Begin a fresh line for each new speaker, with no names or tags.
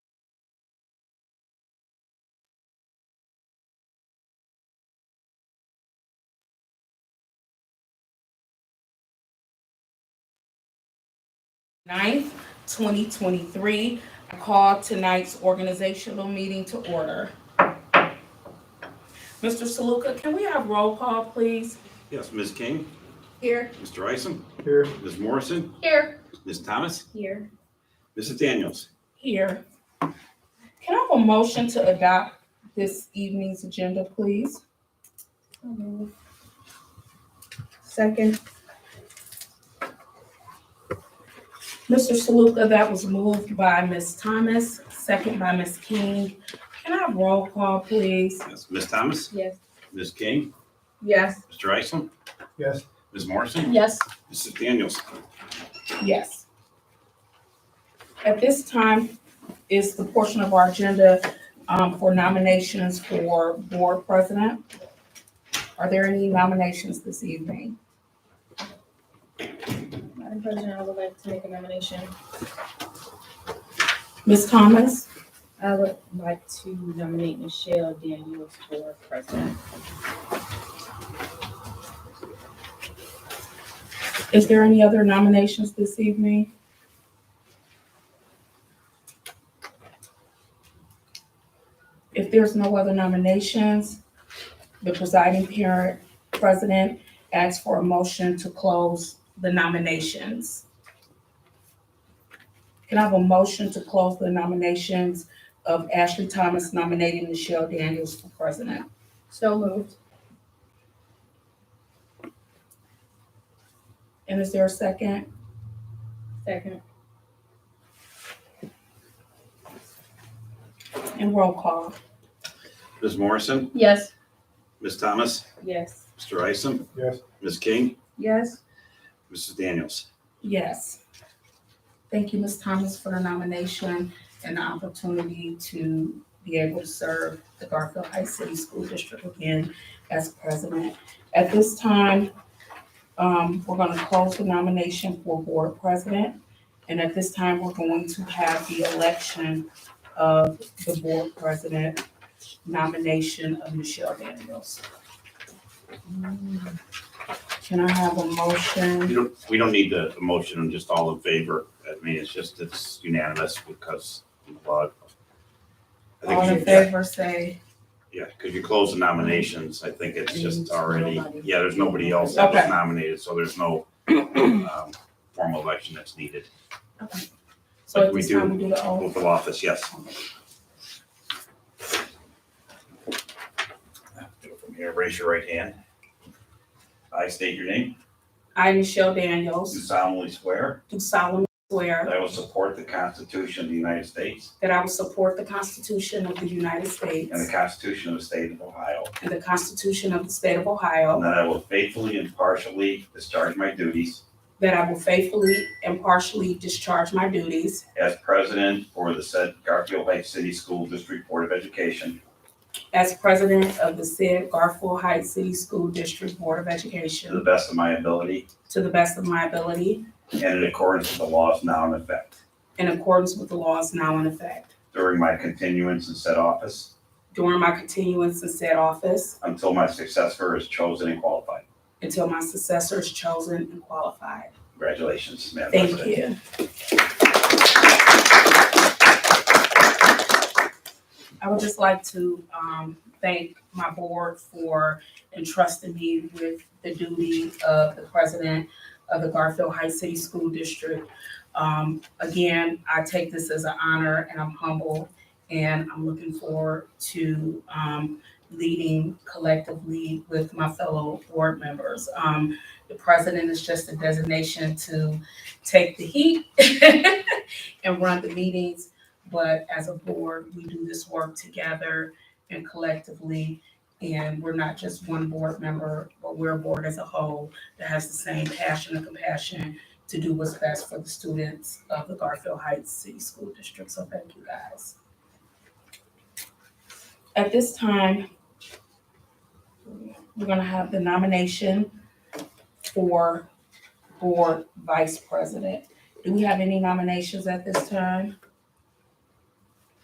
9th, 2023. I call tonight's organizational meeting to order. Mr. Saluka, can we have roll call, please?
Yes, Ms. King,
Here.
Mr. Isom,
Here.
Ms. Morrison,
Here.
Ms. Thomas,
Here.
Mrs. Daniels.
Here. Can I have a motion to adopt this evening's agenda, please?
Second,
Mr. Saluka, that was moved by Ms. Thomas, second by Ms. King. Can I have roll call, please?
Yes, Ms. Thomas,
yes.
Ms. King,
Yes.
Mr. Isom,
Yes.
Ms. Morrison,
Yes.
Mrs. Daniels.
Yes. At this time is the portion of our agenda um, for nominations for board president. Are there any nominations this evening?
Madam President, I would like to make a nomination.
Ms. Thomas,
I would like to nominate Michelle Daniels for president.
is there any other nominations this evening? If there's no other nominations, the presiding parent, president, asks for a motion to close the nominations. Can I have a motion to close the nominations of Ashley Thomas nominating Michelle Daniels for president?
So moved.
And is there a second?
Second.
And roll call.
Ms. Morrison,
Yes.
Ms. Thomas,
Yes.
Mr. Isom,
Yes.
Ms. King,
Yes.
Mrs. Daniels.
Yes. Thank you, Ms. Thomas, for the nomination and the opportunity to be able to serve the Garfield Heights City School District again as president. At this time, um, we're gonna close the nomination for board president. And at this time, we're going to have the election of the board president nomination of Michelle Daniels. Can I have a motion?
You don't, we don't need the motion, I'm just all in favor. I mean, it's just, it's unanimous because, uh, I
All in
think, you-
favor, say,
yeah, because you close the nominations, I think it's just already,
Nobody.
yeah, there's nobody else that was
Okay.
nominated, so there's no um, formal election that's needed.
okay. So
Like
at
we
this
do.
time, we do the oath.
Oath of office, yes. Do it From here, raise your right hand. I state your name.
I, Michelle
Do
Daniels,
solemnly swear
do solemnly
that
swear
I will support the Constitution of the United States
that I will support the Constitution of the United
and the
States
Constitution of the State of Ohio,
and the Constitution of the State of
and
Ohio,
that I will faithfully and partially discharge my duties
that I will faithfully and partially discharge my duties
as president for the said Garfield Heights City School District Board of Education
as president of the said Garfield Heights City School District Board of
to the
Education
best of my ability
to the best of my ability
and in accordance with the laws now in effect.
in accordance with the laws now in effect.
During my continuance in said office,
During my continuance in said office
until my successor is chosen and qualified.
until my successor is chosen and qualified.
Congratulations, Madam
Thank
President.
you. I would just like to um, thank my board for entrusting me with the duty of the president of the Garfield Heights City School District. Um, Again, I take this as an honor and I'm humbled and I'm looking forward to um, leading collectively with my fellow board members. Um, The president is just a designation to take the heat and run the meetings. But as a board, we do this work together and collectively. And we're not just one board member, but we're a board as a whole that has the same passion and compassion to do what's best for the students of the Garfield Heights City School District. So thank you guys. At this time, we're gonna have the nomination for board vice president. Do we have any nominations at this time?